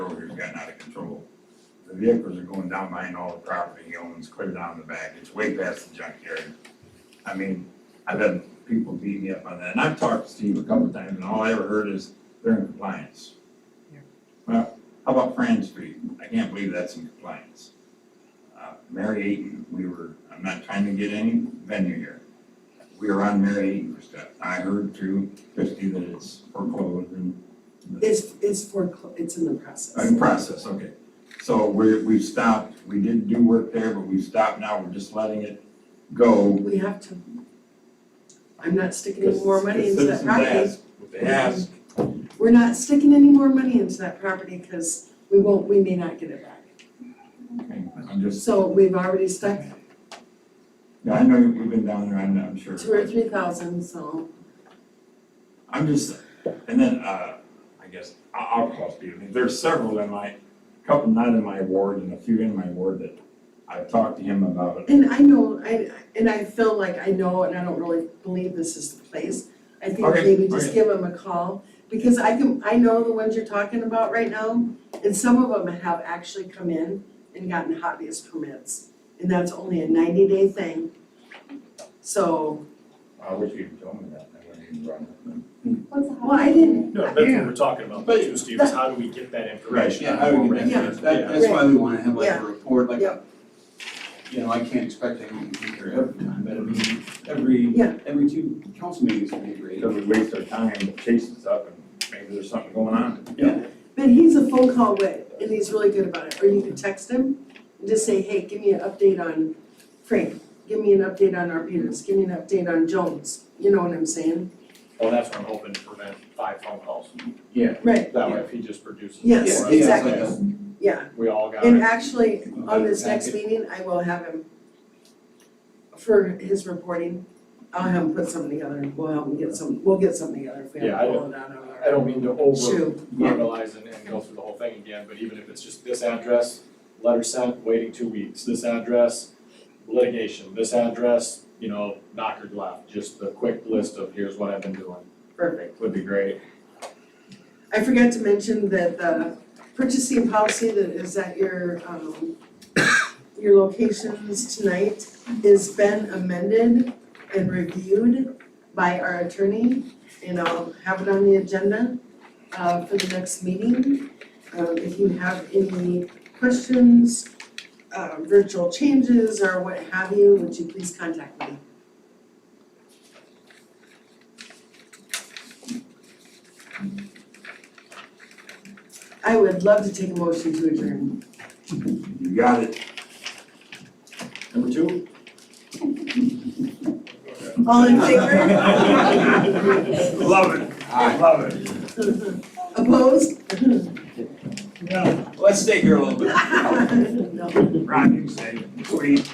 control. The vehicles are going down behind all the property he owns, clear down the back, it's way past the junkyard. I mean, I've had people beat me up on that, and I've talked to Steve a couple of times, and all I ever heard is they're in compliance. Yeah. Well, how about Fran Street? I can't believe that's in compliance. Uh, Mary Ayton, we were, I'm not trying to get any venue here. We were on Mary Ayton for stuff. I heard through Christie that it's foreclosed and It's, it's for, it's in the process. in process, okay. So we're, we've stopped, we did do work there, but we've stopped now, we're just letting it go. We have to, I'm not sticking any because more money into that citizens property. ask what They ask, We're not sticking any more money into that property because we won't, we may not get it back. okay, I'm just, So we've already stuck yeah, I know you've been down there, I'm, I'm sure. two or three thousand, so I'm just, and then, uh, I guess, I- I'll call Steve, I mean, there's several in my, couple not in my ward and a few in my ward that I've talked to him about. And I know, I, and I feel like I know, and I don't really believe this is the place. I think Okay, maybe just okay. give them a call, because I can, I know the ones you're talking about right now, and some of them have actually come in and gotten hobbyist permits, and that's only a ninety day thing. So, I wish you'd told me that, I wouldn't even run with them. well, I didn't, No, that's what we're talking about, But- too, Steve, is how do we get that information? Yeah, I would get Yeah. that, that, that's why we wanna have like Yeah. a report, like, Yeah. you know, I can't expect everyone to be here every time, but I mean, every, Yeah. every two council meetings, we agree. Because we waste our time chasing stuff and maybe there's something going on. but he's a phone call away, and he's really good about it, or you can text him and just say, hey, give me an update on Frank, give me an update on Arbutus, give me an update on Jones, you know what I'm saying? Well, that's what I'm hoping to prevent five phone calls, Yeah. Right, that way if he just produces. it Yes, for Yeah, us, yeah, exactly. it's like Yeah, We all got and it, actually, a- on this next packet. meeting, I will have him for his reporting, I'll have him put something together, and we'll help him get some, we'll get something together if we Yeah, have I to roll it out on I our don't mean to over shoe. verbalize and, and go through the whole thing again, but even if it's just this address, letter sent, waiting two weeks, this address, litigation, this address, you know, knocker left, just the quick list of here's what I've been doing, Perfect. would be great. I forgot to mention that the purchasing policy that is at your, um, your locations tonight is been amended and reviewed by our attorney, and I'll have it on the agenda, uh, for the next meeting. Um, if you have any questions, uh, virtual changes or what have you, would you please contact me? I would love to take a motion to adjourn. You got it. Number two? All in favor? Love it, I love it. Opposed? Let's stay here a little bit. No. Rocking safe, sweet.